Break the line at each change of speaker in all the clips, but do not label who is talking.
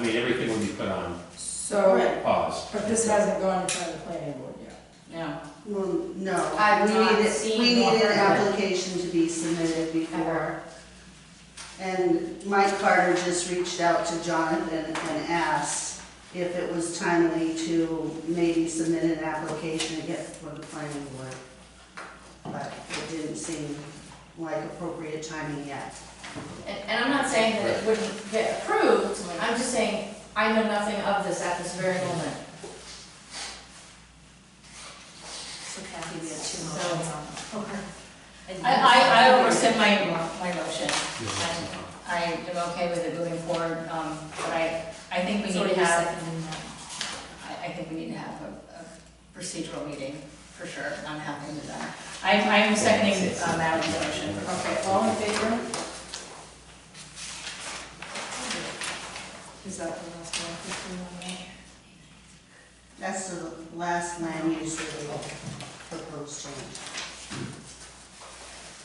mean, everything would be put on
So,
pause.
but this hasn't gone in front of the planning board yet.
No,
Well, no.
I've
We
not
need it-
seen
We
nor
need an
heard of it.
application to be submitted
Ever.
before. And Mike Carter just reached out to Jonathan and asked if it was timely to maybe submit an application to get for the planning board. But it didn't seem like appropriate timing yet.
and, and I'm not saying that it wouldn't get approved, I'm just saying, I know nothing of this at this very moment.
So Kathy, we have two
So-
motions on the floor. And-
I, I, I will rescind my, my motion, and I am okay with it moving forward, um, but I, I think we
So
need to
you're
have,
seconding that.
I, I think we need to have a, a procedural meeting, for sure, and I'm happy with that. I'm, I'm seconding uh, Madeline's motion.
Okay, all in favor?
Is that the last one? Fifteen on that?
That's the last land use that we proposed change.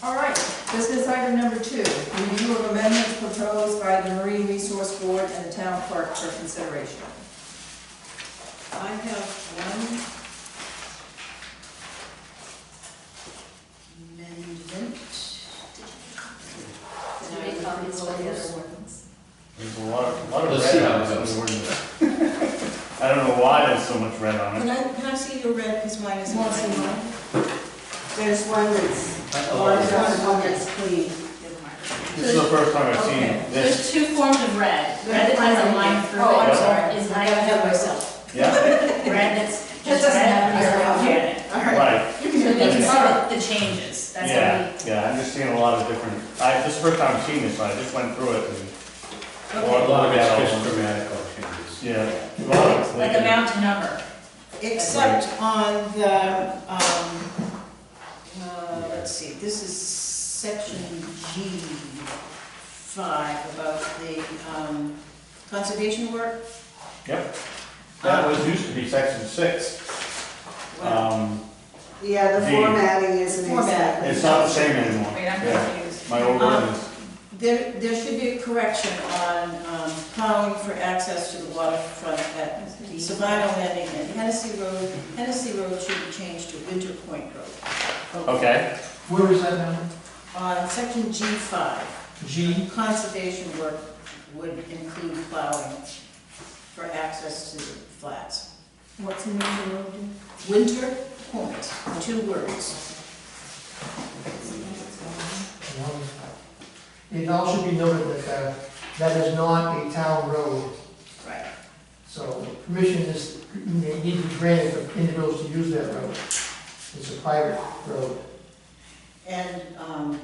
All right, business item number two, review of amendments proposed by the Marine Resource Board and the town clerk for consideration.
I have one amendment.
Did you make copies of the other ones?
There's a lot of, a lot of
Let's see
red
how
on
it goes.
this ordinance. I don't know why there's so much red on
Can
it.
I, can I see your red, because mine is.
Wanna see
mine?
There's one that's, there's one one that's clean.
This is the first time I've seen
Okay.
this.
There's two forms of red, red that has a line through it.
Oh,
I'm
sorry.
Is I don't have myself,
Yeah,
red that's
That
just
doesn't
red,
have your
you're
outfit.
it.
right,
So we can see the the changes, that's
yeah,
what
yeah, I'm just seeing a lot of different, I, this is the first time I've seen this, so I just went through it and,
A lot of it's just grammatical changes.
yeah. a lot of it's
we, like
leaking.
amount to number.
Except on the, um, uh, let's see, this is section G five about the, um, conservation work.
Yep, that was, used to be section six.
Well,
Um,
Yeah, the
The-
formatting isn't
Format.
exactly.
it's not the same anymore.
Wait, I'm
Yeah,
confused.
my old
Um,
ordinance,
There, there should be a correction on um, plowing for access to the waterfront at Sabino Landing and Hennessy Road. Hennessy Road should be changed to Winter Point Road.
okay,
Where is that now?
On Uh, section G5,
G?
conservation work would include plowing for access to the flats.
What's in the road?
Winter Point, two words.
It also be noted that uh, that is not a town road,
Right.
so permission is, may need to be granted for individuals to use that road. It's a private road.
And, um,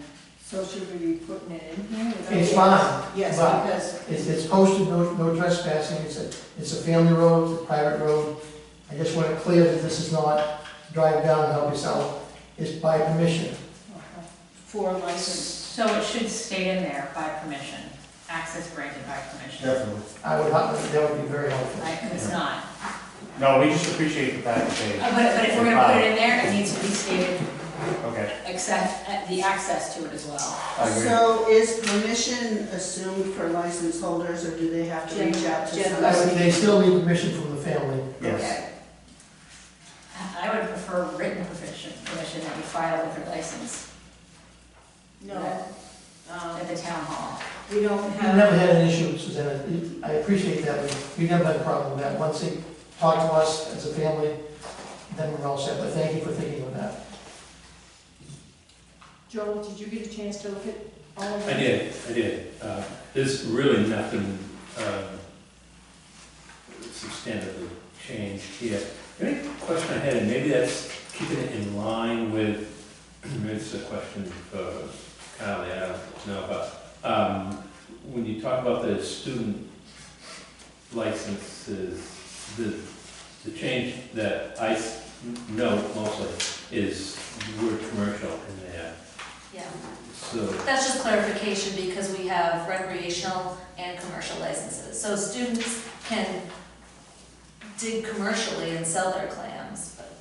So should we be putting it in here? Is that-
It's fine,
yes,
But-
because
it's, it's posted, no no trespassing, it's a, it's a family road, it's a private road. I just want it clear that this is not drive down and help yourself, it's by permission.
for license,
So it should stay in there by permission, access granted by permission.
definitely.
I would, that would be very helpful.
Right, it's not.
No, we just appreciate the fact that
Uh,
they,
But, but if we're gonna put it in there, it needs to be stated,
okay,
except, uh, the access to it as well.
I agree.
So is permission assumed for license holders, or do they have to reach out to
Gen-
I would-
somebody?
They still need permission from the family.
Yes.
Okay.
I would prefer written permission, permission that you file with your license
no. um,
at the town hall.
We don't
We've
have.
never had an issue, Susanna, I appreciate that, We- we've never had a problem with that, once they talk to us as a family, then we're all set, but thank you for thinking of that.
Joel, did you get a chance to look at all of
I
them?
did, I did. Uh, There's really nothing um, substantively changed here. The only question I had, and maybe that's keeping it in line with, maybe it's a question for Kylie, I don't know, but um, when you talk about the student licenses, the, the change that I s- note mostly is the word commercial in there.
Yeah,
So
that's just clarification because we have recreational and commercial licenses. So students can dig commercially and sell their clams, but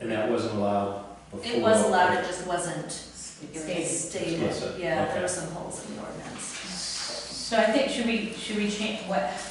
And that wasn't allowed before?
it was allowed, it just wasn't
Stated.
stated.
Explicit,
Yeah, there
okay.
were some holes in the ordinance.
So I think, should we, should we change, what,